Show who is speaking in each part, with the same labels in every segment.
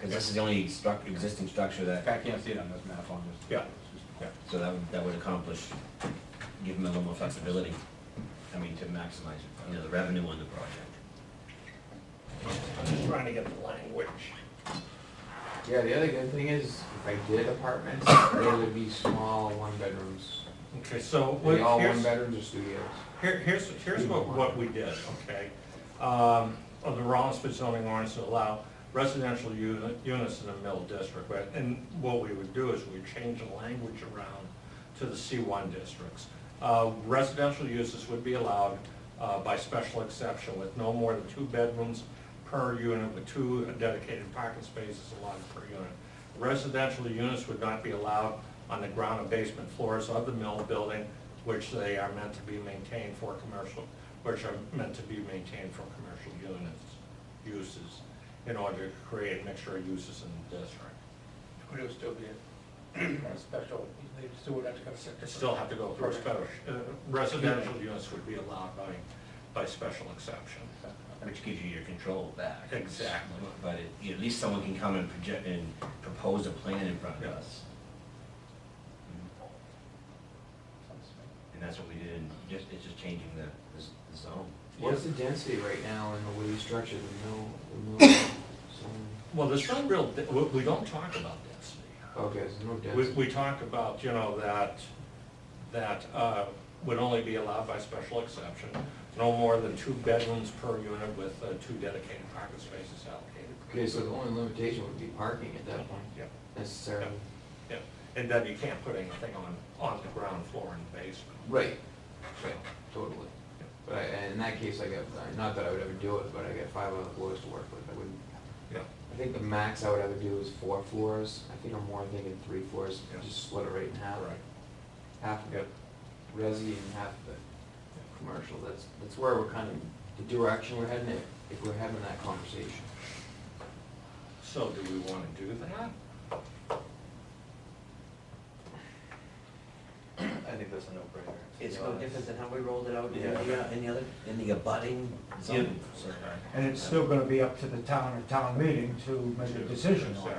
Speaker 1: Because this is the only struc, existing structure
Speaker 2: In
Speaker 1: that,
Speaker 2: fact, I can't see it on this map, I'll just.
Speaker 3: Yeah.
Speaker 1: yeah, so that would, that would accomplish, give them a little more flexibility, I mean, to maximize, you know, the revenue on the project.
Speaker 3: I'm just trying to get the language.
Speaker 4: Yeah, the other good thing is, if I did apartments, they would be small one bedrooms.
Speaker 3: Okay, so
Speaker 4: Are
Speaker 3: what,
Speaker 4: they all one
Speaker 3: here's,
Speaker 4: bedrooms or studios?
Speaker 3: here- here's, here's what, what we did, okay? Um, of the Rollinsford zoning ordinance to allow residential unit, units in the mill district, but- and what we would do is we change the language around to the C one districts. Uh, residential uses would be allowed, uh, by special exception with no more than two bedrooms per unit with two dedicated parking spaces allotted per unit. Residential units would not be allowed on the ground and basement floors of the mill building, which they are meant to be maintained for commercial, which are meant to be maintained for commercial units, uses, in order to create a mixture of uses in the district.
Speaker 5: Would it still be a a special, they still would have to go separate?
Speaker 3: They still have to go through a special, uh, residential units would be allowed by, by special exception.
Speaker 1: Which gives you your control back.
Speaker 3: Exactly.
Speaker 1: But it- you know, at least someone can come and project and propose a plan in front of
Speaker 3: Yeah.
Speaker 1: us. And that's what we did, and just, it's just changing the, the z- the zone.
Speaker 4: What's the density right now in the way you structure the mill, the mill? zone?
Speaker 3: Well, there's no real, de- we, we don't talk about density.
Speaker 4: Oh, Okay, there's no
Speaker 3: We,
Speaker 4: density.
Speaker 3: we talk about, you know, that, that uh, would only be allowed by special exception, no more than two bedrooms per unit with uh, two dedicated parking spaces allocated.
Speaker 4: Okay, so the only limitation would be parking at that point,
Speaker 3: Yeah,
Speaker 4: necessarily.
Speaker 3: yeah, and then you can't put anything on, on the ground floor and basement.
Speaker 4: Right, right, totally. But I, and in that case, I got, not that I would ever do it, but I got five other floors to work with, I wouldn't.
Speaker 3: Yeah.
Speaker 4: I think the max I would ever do is four floors, I think I'm more thinking three floors,
Speaker 3: Yeah.
Speaker 4: just split it right in half.
Speaker 3: Right.
Speaker 4: Half of
Speaker 3: Yeah.
Speaker 4: it resi and half of it commercial, that's, that's where we're kind of, the direction we're heading in, if we're having that conversation.
Speaker 3: So do we want to do that?
Speaker 2: I think that's a no-brainer.
Speaker 1: than how we rolled it out
Speaker 2: in the,
Speaker 1: in the other, in the abutting zone.
Speaker 6: And it's still gonna be up to the town and town meeting to make a decision on it.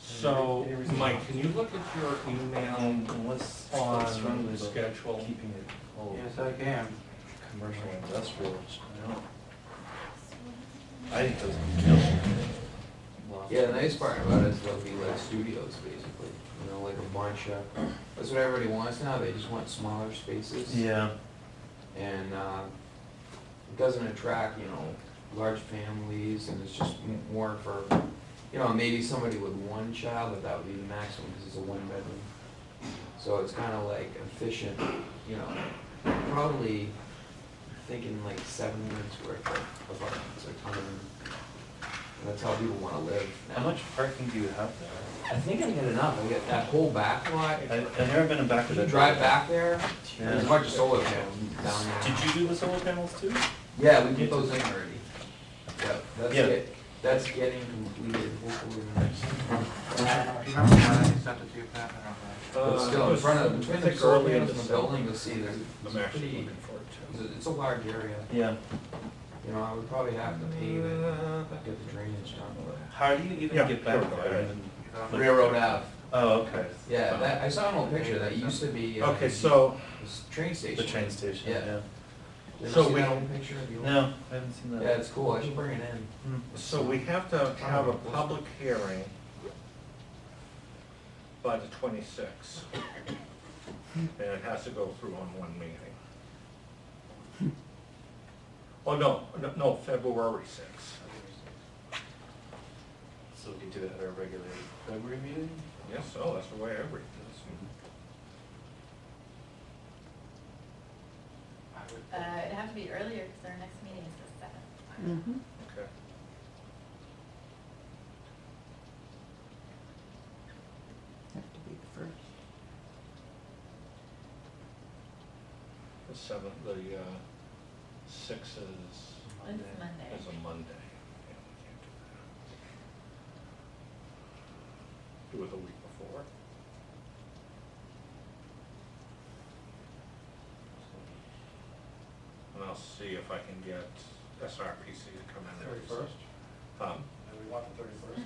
Speaker 3: So, Mike, can you look at your email
Speaker 5: what's,
Speaker 3: on the schedule?
Speaker 5: it whole
Speaker 2: Yes, I can.
Speaker 5: commercial industrial? I think those.
Speaker 4: Yeah, the nice part about it is they'll be like studios, basically, you know, like a bunch of, that's what everybody wants now, they just want smaller spaces.
Speaker 5: Yeah.
Speaker 4: and uh, it doesn't attract, you know, large families, and it's just m- more for, you know, maybe somebody with one child, but that would be the maximum, because it's a one-bedroom. So it's kind of like efficient, you know, probably thinking like seven minutes worth of apartments or time. That's how people want to live. now.
Speaker 5: How much parking do you have there?
Speaker 4: I think I get enough, I get that whole back lot,
Speaker 5: I, I've never been in back of
Speaker 4: if
Speaker 5: the.
Speaker 4: you drive back there, there's a
Speaker 5: Yeah.
Speaker 4: bunch of solar panels down there.
Speaker 5: Did you do the solar panels too?
Speaker 4: Yeah, we did those in already. Yep, that's
Speaker 5: Yeah.
Speaker 4: it, that's getting completed, hopefully in the next.
Speaker 2: Remember when I sent it to you, Pat? I don't know.
Speaker 4: But
Speaker 3: Uh, it
Speaker 4: still, in
Speaker 3: was-
Speaker 4: front of,
Speaker 3: I
Speaker 4: between the
Speaker 3: think
Speaker 4: solar
Speaker 3: early in
Speaker 4: panels and the
Speaker 3: summer.
Speaker 4: building, you'll see there's, it's
Speaker 3: I'm actually
Speaker 4: pretty,
Speaker 3: looking forward to.
Speaker 4: it's a- it's a large area.
Speaker 5: Yeah.
Speaker 4: You know, I would probably have to pave it, get the drainage done.
Speaker 5: How do you even
Speaker 3: Yeah,
Speaker 5: get back
Speaker 3: sure,
Speaker 5: there?
Speaker 3: okay.
Speaker 5: Like-
Speaker 4: Railroad Ave,
Speaker 5: Oh, okay.
Speaker 4: yeah, that, I saw an old picture, that used to be. uh,
Speaker 3: Okay, so,
Speaker 4: this Train station.
Speaker 5: The train station, yeah.
Speaker 4: Yeah. You ever
Speaker 3: So
Speaker 4: see
Speaker 3: we-
Speaker 4: that old picture of the old?
Speaker 5: No, I haven't seen
Speaker 4: Yeah,
Speaker 5: that.
Speaker 4: it's cool, I should bring it in.
Speaker 5: Hmm.
Speaker 3: so we have to have a public hearing by the twenty-sixth. And it has to go through on one meeting. Oh, no, no, no, February sixth.
Speaker 5: So we can do it at our regular February meeting?
Speaker 3: Yes, so that's the way I read this.
Speaker 7: Uh, it'd have to be earlier, because our next meeting is the seventh.
Speaker 3: Okay.
Speaker 8: Have to be the first.
Speaker 3: The seventh, the, uh, sixth is,
Speaker 7: It's Monday.
Speaker 3: is a Monday. Yeah, we can't do that. Do it the week before. And I'll see if I can get SRPC to come in there.
Speaker 5: Thirty-first?
Speaker 3: Um,
Speaker 5: Are we
Speaker 4: want the thirty-first.